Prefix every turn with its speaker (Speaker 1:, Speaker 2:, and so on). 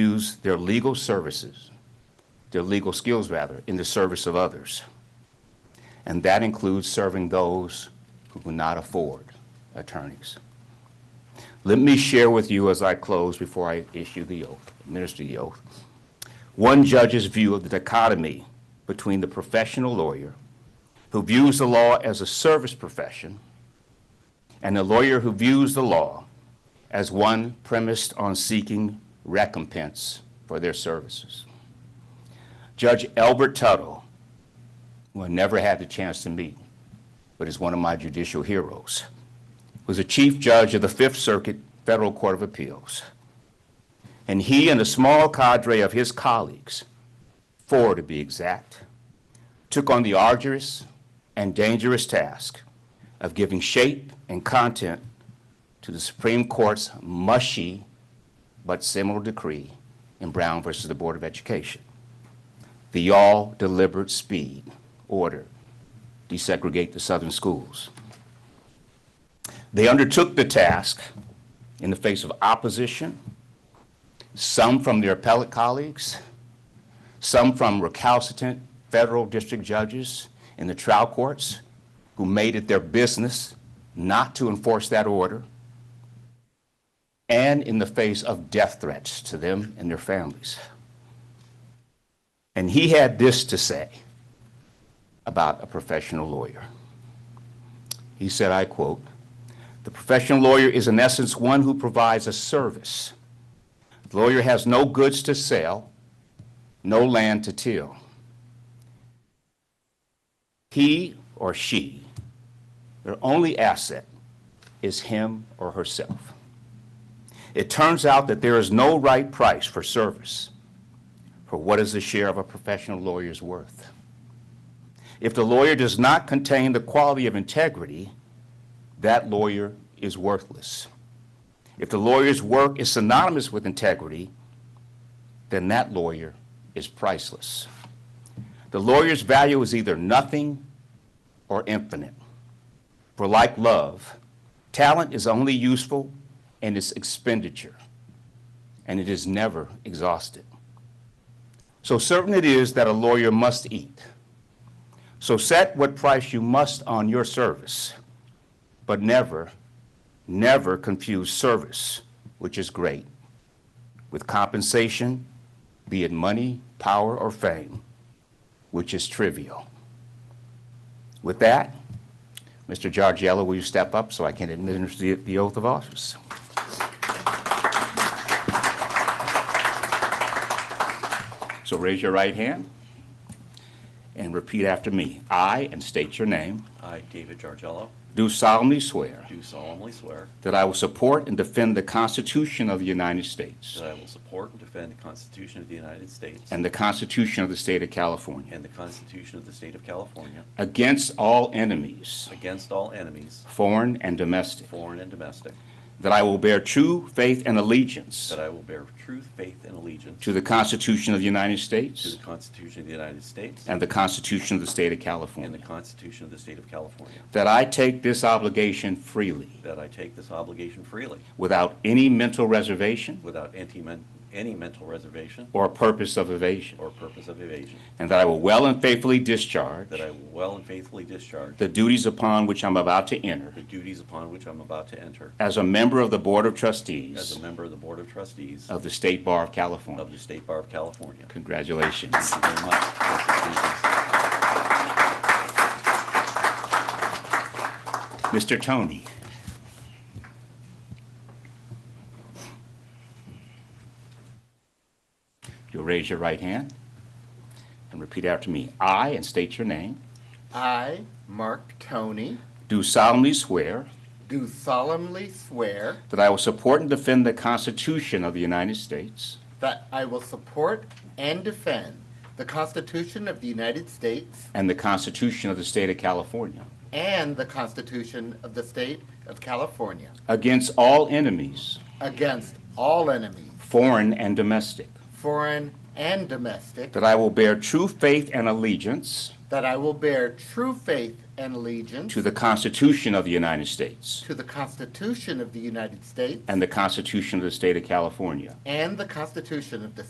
Speaker 1: use their legal services, their legal skills rather, in the service of others. And that includes serving those who cannot afford attorneys. Let me share with you as I close before I issue the oath, administer the oath, one judge's view of the dichotomy between the professional lawyer who views the law as a service profession and a lawyer who views the law as one premised on seeking recompense for their services. Judge Albert Tuttle, who I never had the chance to meet, but is one of my judicial heroes, was a chief judge of the Fifth Circuit Federal Court of Appeals. And he and a small cadre of his colleagues, four to be exact, took on the arduous and dangerous task of giving shape and content to the Supreme Court's mushy but seminal decree in Brown versus the Board of Education. The all deliberate speed order desegregate the Southern schools. They undertook the task in the face of opposition, some from their appellate colleagues, some from recalcitrant federal district judges in the trial courts who made it their business not to enforce that order, and in the face of death threats to them and their families. And he had this to say about a professional lawyer. He said, I quote, "The professional lawyer is in essence one who provides a service. The lawyer has no goods to sell, no land to till. He or she, their only asset is him or herself. It turns out that there is no right price for service. For what is the share of a professional lawyer's worth? If the lawyer does not contain the quality of integrity, that lawyer is worthless. If the lawyer's work is synonymous with integrity, then that lawyer is priceless. The lawyer's value is either nothing or infinite. For like love, talent is only useful in its expenditure, and it is never exhausted. So certain it is that a lawyer must eat. So set what price you must on your service, but never, never confuse service, which is great, with compensation, be it money, power, or fame, which is trivial. With that, Mr. Giorgiello, will you step up so I can administer the- the oath of office? So raise your right hand and repeat after me. I, and state your name,
Speaker 2: I, David Jargello,
Speaker 1: do solemnly swear
Speaker 2: do solemnly swear
Speaker 1: that I will support and defend the Constitution of the United States
Speaker 2: that I will support and defend the Constitution of the United States
Speaker 1: and the Constitution of the State of California
Speaker 2: and the Constitution of the State of California
Speaker 1: against all enemies,
Speaker 2: against all enemies,
Speaker 1: foreign and domestic,
Speaker 2: foreign and domestic,
Speaker 1: that I will bear true faith and allegiance
Speaker 2: that I will bear truth, faith, and allegiance
Speaker 1: to the Constitution of the United
Speaker 2: to the
Speaker 1: States
Speaker 2: Constitution of the United States
Speaker 1: and the Constitution of the State of
Speaker 2: and the
Speaker 1: California,
Speaker 2: Constitution of the State of California,
Speaker 1: that I take this obligation freely
Speaker 2: that I take this obligation freely
Speaker 1: without any mental reservation
Speaker 2: without any men- any mental reservation
Speaker 1: or purpose of evasion,
Speaker 2: or purpose of evasion,
Speaker 1: and that I will well and faithfully discharge
Speaker 2: that I will well and faithfully discharge
Speaker 1: the duties upon which I'm about to enter
Speaker 2: the duties upon which I'm about to enter
Speaker 1: as a member of the Board of
Speaker 2: as
Speaker 1: Trustees
Speaker 2: a member of the Board of Trustees
Speaker 1: of the State Bar of
Speaker 2: of
Speaker 1: California.
Speaker 2: the State Bar of California.
Speaker 1: Congratulations.
Speaker 2: Thank you very much.
Speaker 1: Mr. Tony. You'll raise your right hand and repeat after me. I, and state your name,
Speaker 3: I, Mark Tony,
Speaker 1: do solemnly swear
Speaker 3: do solemnly swear
Speaker 1: that I will support and defend the Constitution of the United States
Speaker 3: that I will support and defend the Constitution of the United States
Speaker 1: and the Constitution of the State of California
Speaker 3: and the Constitution of the State of California
Speaker 1: against all enemies,
Speaker 3: against all enemies,
Speaker 1: foreign and domestic,
Speaker 3: foreign and domestic,
Speaker 1: that I will bear true faith and allegiance
Speaker 3: that I will bear true faith and allegiance
Speaker 1: to the Constitution of the United States
Speaker 3: to the Constitution of the United States
Speaker 1: and the Constitution of the State of California.
Speaker 3: and the Constitution of the